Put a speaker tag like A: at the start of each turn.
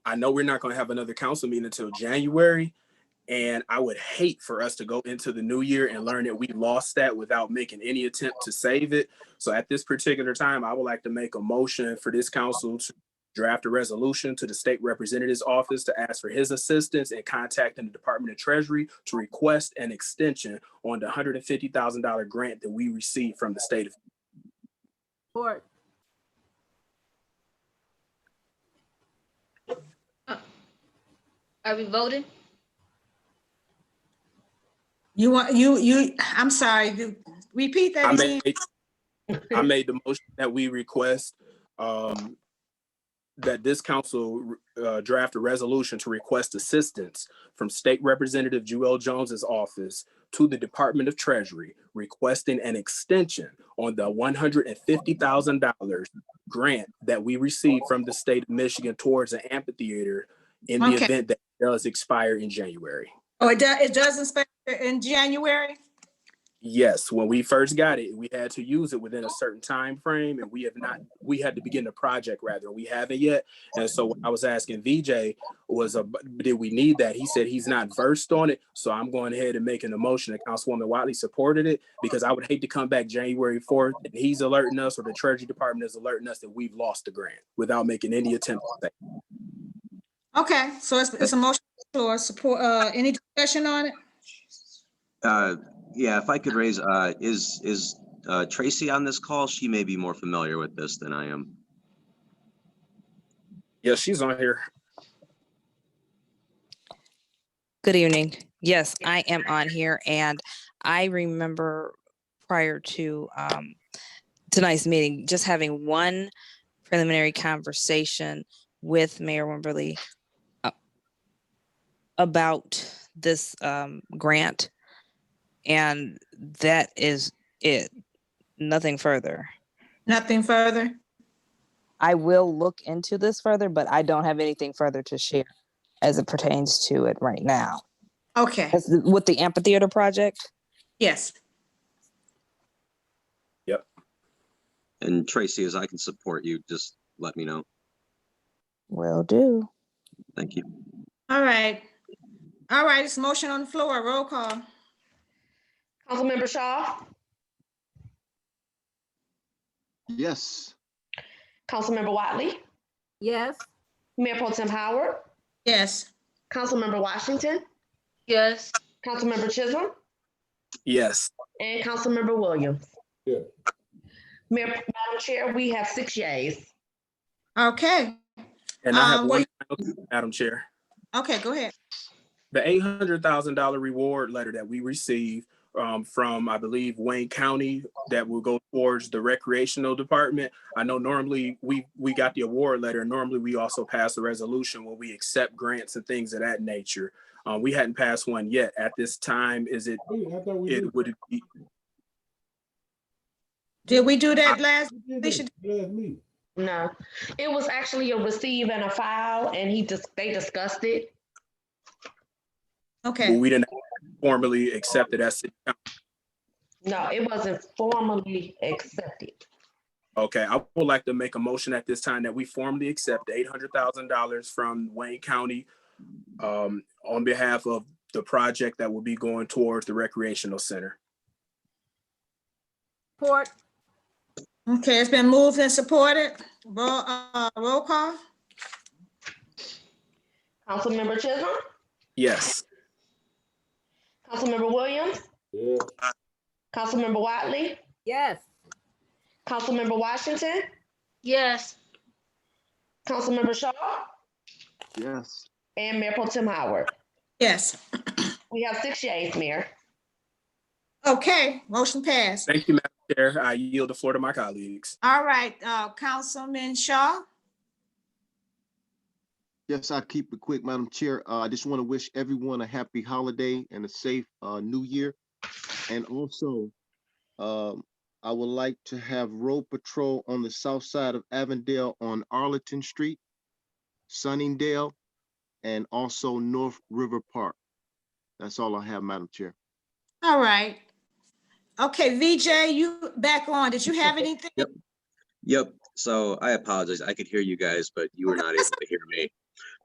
A: I know we're not going to have another council meeting until January. And I would hate for us to go into the new year and learn that we lost that without making any attempt to save it. So at this particular time, I would like to make a motion for this council to draft a resolution to the state representative's office to ask for his assistance in contacting the Department of Treasury to request an extension on the hundred and fifty thousand dollar grant that we received from the state of.
B: Support.
C: Are we voting?
D: You want, you, you, I'm sorry, you- repeat
A: I
D: that again.
A: made, I made the motion that we request, um, that this council, uh, draft a resolution to request assistance from State Representative Jewel Jones's office to the Department of Treasury requesting an extension on the one hundred and fifty thousand dollars grant that we received from the state of Michigan towards an amphitheater in the
D: Okay.
A: event that does expire in January.
D: Oh, it does, it does expire in January?
A: Yes, when we first got it, we had to use it within a certain time frame, and we have not. We had to begin the project rather. We haven't yet, and so what I was asking VJ was, a, did we need that? He said he's not versed on it, so I'm going ahead and making a motion. that Councilwoman Wiley supported it because I would hate to come back January fourth and he's alerting us or the Treasury Department is alerting us that we've lost the grant without making any attempt. at that.
D: Okay, so it's, it's a motion or support, uh, any discussion on it?
E: Uh, Yeah, if I could raise, uh, is, is uh, Tracy on this call? She may be more familiar with this than I am.
A: Yeah, she's on here.
F: Good evening. Yes, I am on here and I remember prior to um tonight's meeting, just having one preliminary conversation with Mayor Wimberly uh, about this um grant. And that is it, nothing further.
D: Nothing further?
F: I will look into this further, but I don't have anything further to share as it pertains to it right now.
D: Okay,
F: That's the- with the amphitheater project?
D: yes.
E: And Tracy, as I can support you, just let me know.
F: Will do.
E: Thank you.
D: All right. All right, it's motion on the floor, roll call.
C: Councilmember Shaw,
G: Yes.
C: Councilmember Wiley,
B: Yes.
C: Mayor Pro Tem Howard,
D: Yes.
C: Councilmember Washington,
B: Yes.
C: Councilmember Chisholm,
A: Yes,
C: and Councilmember Williams.
G: Yeah.
C: Mayor, Madam Chair, we have six yays.
D: Okay,
A: and I have
D: Um,
A: one, final- Madam Chair.
D: okay, go ahead.
A: the eight hundred thousand dollar reward letter that we received um, from, I believe, Wayne County that will go towards the recreational department. I know normally we we got the award letter. Normally, we also pass a resolution when we accept grants and things of that nature. Uh, we hadn't passed one yet. At this time, is it
G: Wait, I thought we did.
A: it would it be
D: Did we do that last?
G: We did
D: they
G: it
D: should-
G: last meeting.
C: No, it was actually a receive and a file, and he just, they discussed it.
A: well,
D: Okay,
A: we didn't formally accept it as city council.
C: No, it wasn't formally accepted.
A: Okay, I would like to make a motion at this time that we formally accept the eight hundred thousand dollars from Wayne County um, on behalf of the project that will be going towards the recreational center.
B: Support.
D: okay, it's been moved and supported, roll, uh, roll call?
C: Councilmember Chisholm,
A: Yes,
C: Councilmember Williams,
G: Yeah,
C: Councilmember Wiley,
B: Yes.
C: Councilmember Washington,
B: Yes.
C: Councilmember Shaw,
G: yes.
C: and Mayor Pro Tem Howard.
D: Yes,
C: We have six yays, Mayor.
D: okay, motion passed.
A: thank you, Madam Chair. I yield the floor to my colleagues.
D: All right, uh, Councilman Shaw?
G: Yes, I'll keep it quick, Madam Chair. Uh, I just want to wish everyone a happy holiday and a safe, uh, new year. And also, um, I would like to have road patrol on the south side of Avondale on Arlington Street, Sunningdale, and also North River Park. That's all I have, Madam Chair.
D: All right. Okay, VJ, you back on. Did you have anything?
E: Yep, so I apologize. I could hear you guys, but you were not able to hear me.